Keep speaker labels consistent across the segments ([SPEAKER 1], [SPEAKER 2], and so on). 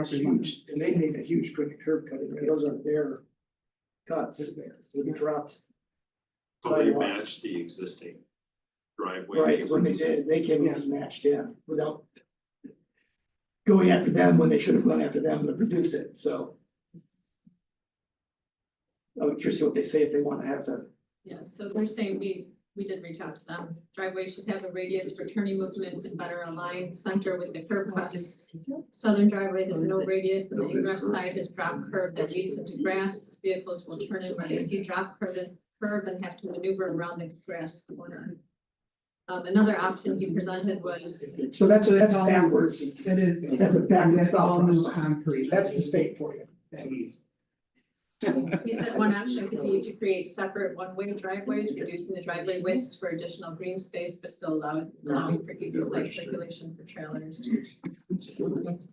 [SPEAKER 1] That's a huge, and they made a huge quick curb cut, and those aren't their cuts, so they dropped.
[SPEAKER 2] So they
[SPEAKER 1] sidewalks.
[SPEAKER 2] matched the existing driveway.
[SPEAKER 1] Right, when they did, they came in as matched, yeah, without. Going after them when they should have gone after them to reduce it, so. I would curious what they say if they wanna have to,
[SPEAKER 3] Yeah, so they're saying we, we did reach out to them. Driveway should have a radius for turning movements and better align center with the curb cuts. Southern driveway has no radius and the ingress side is drop curb that leads into grass. Vehicles will turn in where they see drop curb and curb and have to maneuver around the grass corner. Um, another option he presented was,
[SPEAKER 1] so that's, that's
[SPEAKER 4] It's all
[SPEAKER 1] backwards,
[SPEAKER 4] concrete.
[SPEAKER 1] that is, that's a backwards
[SPEAKER 4] That's all
[SPEAKER 1] thought
[SPEAKER 4] new
[SPEAKER 1] process.
[SPEAKER 4] concrete.
[SPEAKER 1] that's the state for you.
[SPEAKER 4] That's-
[SPEAKER 3] he said one option could be to create separate one-way driveways, reducing the driveway widths for additional green space, but still allowing, allowing for easy site circulation for trailers.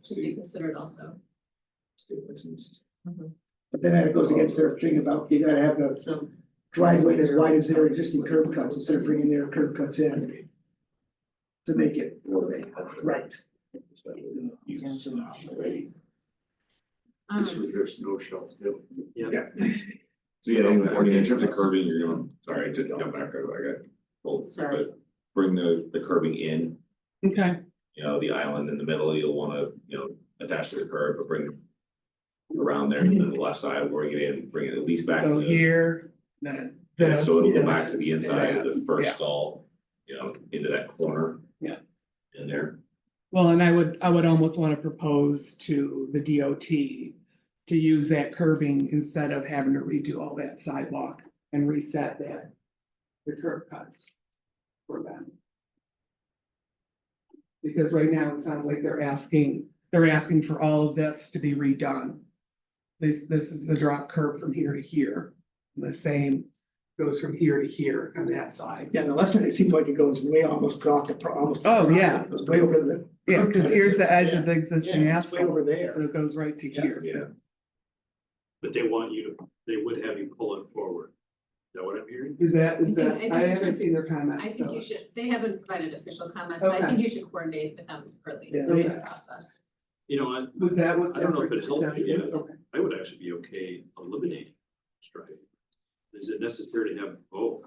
[SPEAKER 3] should be considered also.
[SPEAKER 1] But then that goes against their thing about you gotta have the
[SPEAKER 4] So,
[SPEAKER 1] driveway as wide as their existing curb cuts instead of bringing their curb cuts in. To make it right.
[SPEAKER 3] Um,
[SPEAKER 5] there's no shelf too.
[SPEAKER 6] So yeah, I mean, in terms of curbing, you're going, sorry, to jump back, I got pulled,
[SPEAKER 4] Sorry.
[SPEAKER 6] but bring the, the curbing in,
[SPEAKER 4] okay,
[SPEAKER 6] you know, the island in the middle, you'll wanna, you know, attach to the curb, but bring it around there, and then the left side, bring it in, bring it at least back to
[SPEAKER 4] so
[SPEAKER 6] the,
[SPEAKER 4] here, then the,
[SPEAKER 6] yeah, so it'll go back to the inside of the
[SPEAKER 4] Yeah.
[SPEAKER 6] first stall, you know, into that corner.
[SPEAKER 4] Yeah.
[SPEAKER 6] In there,
[SPEAKER 4] well, and I would, I would almost wanna propose to the DOT. To use that curbing instead of having to redo all that sidewalk and reset that. The curb cuts. For them. Because right now it sounds like they're asking, they're asking for all of this to be redone. This, this is the drop curb from here to here, the same goes from here to here on that side.
[SPEAKER 1] Yeah, and the left side, it seems like it goes way almost off the, pro- almost.
[SPEAKER 4] Oh, yeah.
[SPEAKER 1] It goes way over the,
[SPEAKER 4] Yeah, because here's the edge of the existing
[SPEAKER 1] yeah, it's way
[SPEAKER 4] asphalt,
[SPEAKER 1] over there.
[SPEAKER 4] so it goes right to here.
[SPEAKER 6] yeah,
[SPEAKER 2] But they want you to, they would have you pull it forward. Is that what I'm hearing?
[SPEAKER 4] Is that, is
[SPEAKER 3] I think-
[SPEAKER 4] that,
[SPEAKER 3] I think
[SPEAKER 4] I
[SPEAKER 3] you
[SPEAKER 4] haven't
[SPEAKER 3] should-
[SPEAKER 4] seen their comment,
[SPEAKER 3] I think
[SPEAKER 4] so-
[SPEAKER 3] you should, they haven't provided official comments, but I think you should coordinate with them early
[SPEAKER 1] Yeah,
[SPEAKER 3] in this
[SPEAKER 1] they-
[SPEAKER 3] process.
[SPEAKER 2] You know, I,
[SPEAKER 4] Was that what?
[SPEAKER 2] I don't know if it
[SPEAKER 4] that-
[SPEAKER 2] helped you, yeah.
[SPEAKER 4] Okay.
[SPEAKER 2] I would actually be okay eliminating striping. Is it necessary to have both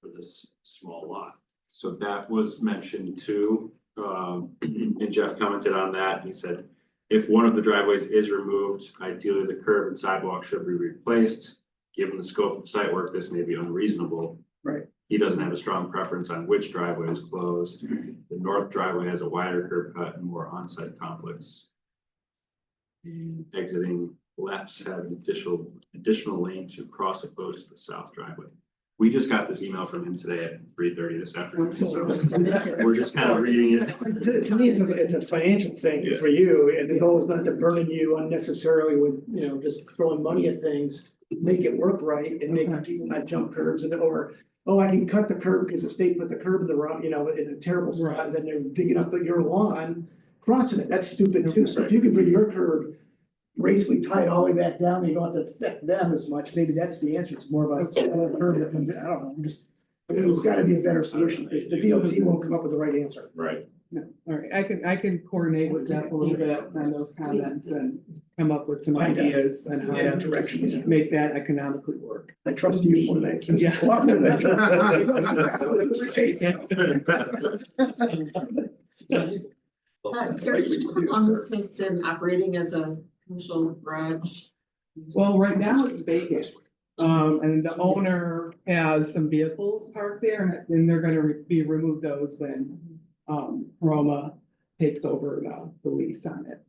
[SPEAKER 2] for this small lot?
[SPEAKER 7] So that was mentioned too, um, and Jeff commented on that, and he said. If one of the driveways is removed, ideally the curb and sidewalk should be replaced. Given the scope of site work, this may be unreasonable.
[SPEAKER 1] Right.
[SPEAKER 7] He doesn't have a strong preference on which driveway is closed, the north driveway has a wider curb cut and more on-site conflicts. And exiting lefts have an additional, additional lane to cross opposed to the south driveway. We just got this email from him today at three thirty this afternoon, so we're just kind of reading it.
[SPEAKER 1] To, to me, it's a, it's a financial thing
[SPEAKER 7] Yeah.
[SPEAKER 1] for you, and the goal is not to burden you unnecessarily with, you know, just throwing money at things. Make it work right and make
[SPEAKER 4] Okay.
[SPEAKER 1] people not jump curves and, or, oh, I can cut the curb because the state put the curb in the wrong, you know, in a terrible spot, and then they're digging up your lawn. Crossing it, that's stupid too, so if you can bring your curb gracefully tied all the way back down, you don't have to affect them as much, maybe that's the answer, it's more about.
[SPEAKER 4] Okay.
[SPEAKER 1] a curb that comes in. I don't know, I'm just, I mean, there's gotta be a better solution, because the DOT won't come up with the right answer.
[SPEAKER 6] right.
[SPEAKER 4] No, all right, I can, I can coordinate with Jeff a little bit on those comments and come up with some
[SPEAKER 1] Find out.
[SPEAKER 4] ideas and how
[SPEAKER 1] Yeah,
[SPEAKER 4] to
[SPEAKER 1] directions.
[SPEAKER 4] make that economically work.
[SPEAKER 1] I trust you more than I can.
[SPEAKER 4] Yeah.
[SPEAKER 8] Thomas has been operating as a commercial garage.
[SPEAKER 4] Well, right now it's vacant, um, and the owner has some vehicles parked there, and then they're gonna re- be remove those when. Um, Roma takes over the, the lease on it.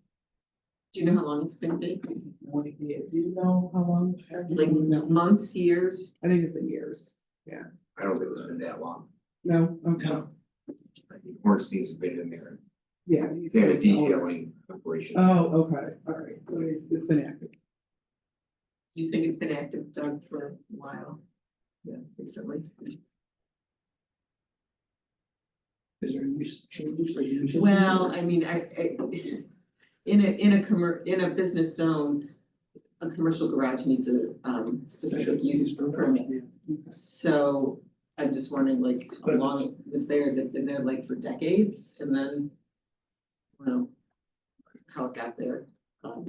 [SPEAKER 8] Do you know how long it's been vacant?
[SPEAKER 4] No idea. Do you know how long?
[SPEAKER 8] Like
[SPEAKER 4] No.
[SPEAKER 8] months, years?
[SPEAKER 4] I think it's been years.
[SPEAKER 5] I don't think it's been that long.
[SPEAKER 4] No, okay,
[SPEAKER 5] I think Ornstein's been in there.
[SPEAKER 4] yeah. he's-
[SPEAKER 5] They had a detailing operation.
[SPEAKER 4] Oh, okay, all right, so it's, it's been active.
[SPEAKER 8] Do you think it's been active, Doug, for a while? Yeah, recently.
[SPEAKER 1] Is there any change or usually?
[SPEAKER 8] Well, I mean, I, I, in a, in a commer, in a business zone, a commercial garage needs a, um, specific use permit. So I'm just wondering like how
[SPEAKER 1] But it
[SPEAKER 8] long it was there, has it been there like for decades and then? Well, how it got there,